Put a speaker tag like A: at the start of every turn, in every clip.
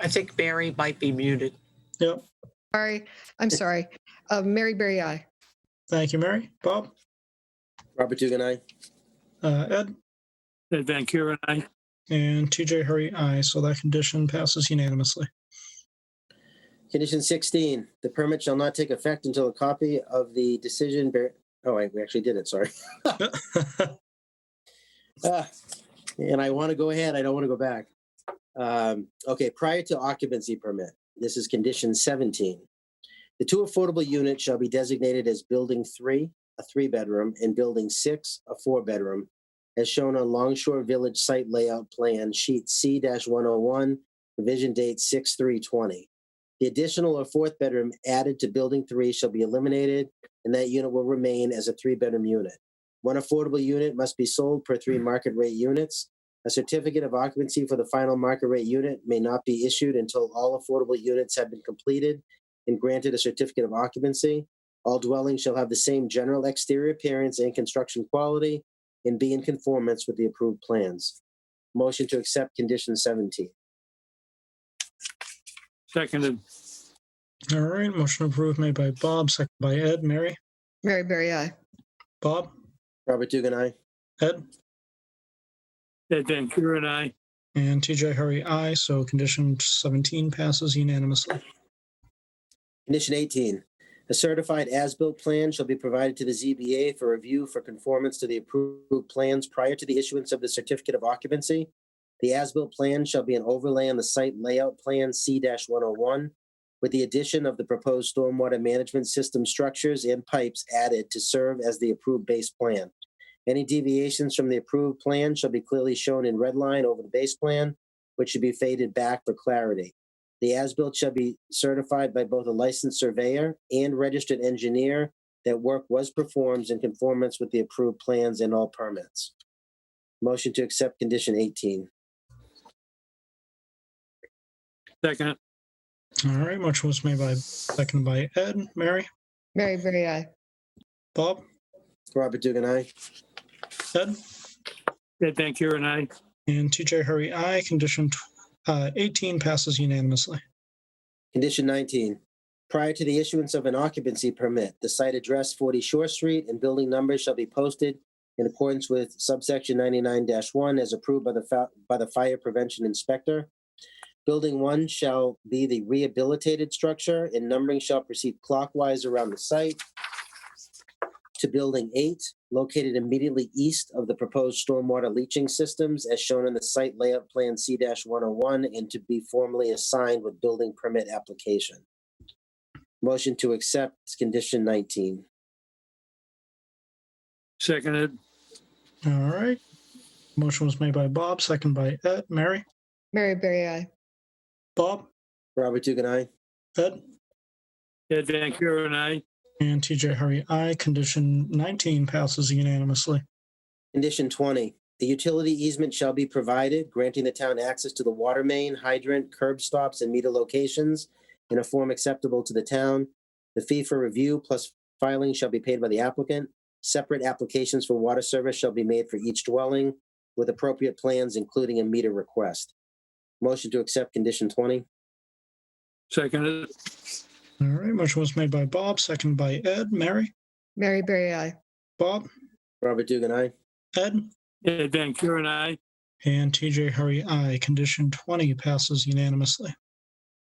A: I think Mary might be muted.
B: Yep.
C: Sorry, I'm sorry. Uh, Mary Berry, I.
B: Thank you, Mary. Bob,
D: Robert Dugan, aye.
B: uh, Ed,
E: Ed Van Kuren, aye.
B: and TJ Hurry, aye. So that condition passes unanimously.
D: Condition 16, the permit shall not take effect until a copy of the decision, bear- oh, wait, we actually did it, sorry. Ah, And I want to go ahead, I don't want to go back. Um, Okay, prior to occupancy permit, this is condition 17. The two affordable units shall be designated as building three, a three-bedroom, and building six, a four-bedroom, as shown on Longshore Village Site Layout Plan Sheet C-101, revision date 6/3/20. The additional or fourth bedroom added to building three shall be eliminated, and that unit will remain as a three-bedroom unit. One affordable unit must be sold per three market rate units. A certificate of occupancy for the final market rate unit may not be issued until all affordable units have been completed and granted a certificate of occupancy. All dwellings shall have the same general exterior appearance and construction quality and be in conformance with the approved plans. Motion to accept condition 17.
E: Seconded.
B: All right, motion approved made by Bob, second by Ed. Mary,
C: Mary Berry, I.
B: Bob,
D: Robert Dugan, aye.
B: Ed,
E: Ed Van Kuren, aye.
B: and TJ Hurry, aye. So condition 17 passes unanimously.
D: Condition 18, a certified as-built plan shall be provided to the ZBA for review for conformance to the approved plans prior to the issuance of the certificate of occupancy. The as-built plan shall be an overlay on the site layout plan C-101 with the addition of the proposed stormwater management system structures and pipes added to serve as the approved base plan. Any deviations from the approved plan shall be clearly shown in red line over the base plan, which should be faded back for clarity. The as-built shall be certified by both a licensed surveyor and registered engineer that work was performed in conformance with the approved plans and all permits. Motion to accept condition 18.
E: Seconded.
B: All right, motion was made by, second by Ed. Mary,
C: Mary Berry, I.
B: Bob,
D: Robert Dugan, aye.
B: Ed,
E: Ed Van Kuren, aye.
B: and TJ Hurry, aye. Condition tw- uh, 18 passes unanimously.
D: Condition 19, prior to the issuance of an occupancy permit, the site address 40 Shore Street and building numbers shall be posted in accordance with subsection 99-1 as approved by the, fa- by the fire prevention inspector. Building 1 shall be the rehabilitated structure and numbering shall proceed clockwise around the site to Building 8, located immediately east of the proposed stormwater leaching systems as shown in the site layout plan C-101 and to be formally assigned with building permit application. Motion to accept condition 19.
E: Seconded.
B: All right, motion was made by Bob, second by Ed. Mary,
C: Mary Berry, I.
B: Bob,
D: Robert Dugan, aye.
B: Ed,
E: Ed Van Kuren, aye.
B: and TJ Hurry, aye. Condition 19 passes unanimously.
D: Condition 20, the utility easement shall be provided, granting the town access to the water main, hydrant, curb stops, and meter locations in a form acceptable to the town. The fee for review plus filing shall be paid by the applicant. Separate applications for water service shall be made for each dwelling with appropriate plans, including a meter request. Motion to accept condition 20.
E: Seconded.
B: All right, motion was made by Bob, second by Ed. Mary,
C: Mary Berry, I.
B: Bob,
D: Robert Dugan, aye.
B: Ed,
E: Ed Van Kuren, aye.
B: and TJ Hurry, aye. Condition 20 passes unanimously.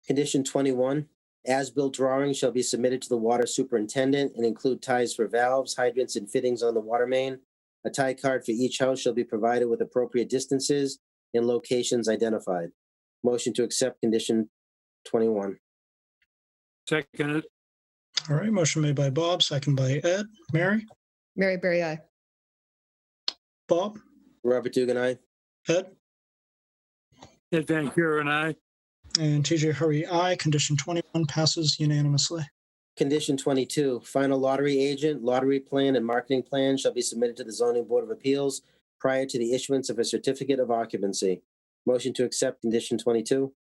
D: Condition 21, as-built drawings shall be submitted to the water superintendent and include ties for valves, hydrants, and fittings on the water main. A tie card for each house shall be provided with appropriate distances and locations identified. Motion to accept condition 21.
E: Seconded.
B: All right, motion made by Bob, second by Ed. Mary,
C: Mary Berry, I.
B: Bob,
D: Robert Dugan, aye.
B: Ed,
E: Ed Van Kuren, aye.
B: and TJ Hurry, aye. Condition 21 passes unanimously.
D: Condition 22, final lottery agent, lottery plan, and marketing plan shall be submitted to the zoning board of appeals prior to the issuance of a certificate of occupancy. Motion to accept condition 22.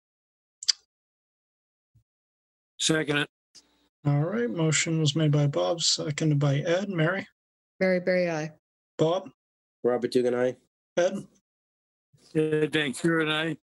E: Seconded.
B: All right, motion was made by Bob, seconded by Ed. Mary,
C: Mary Berry, I.
B: Bob,
D: Robert Dugan, aye.
B: Ed,
E: Ed Van Kuren, aye.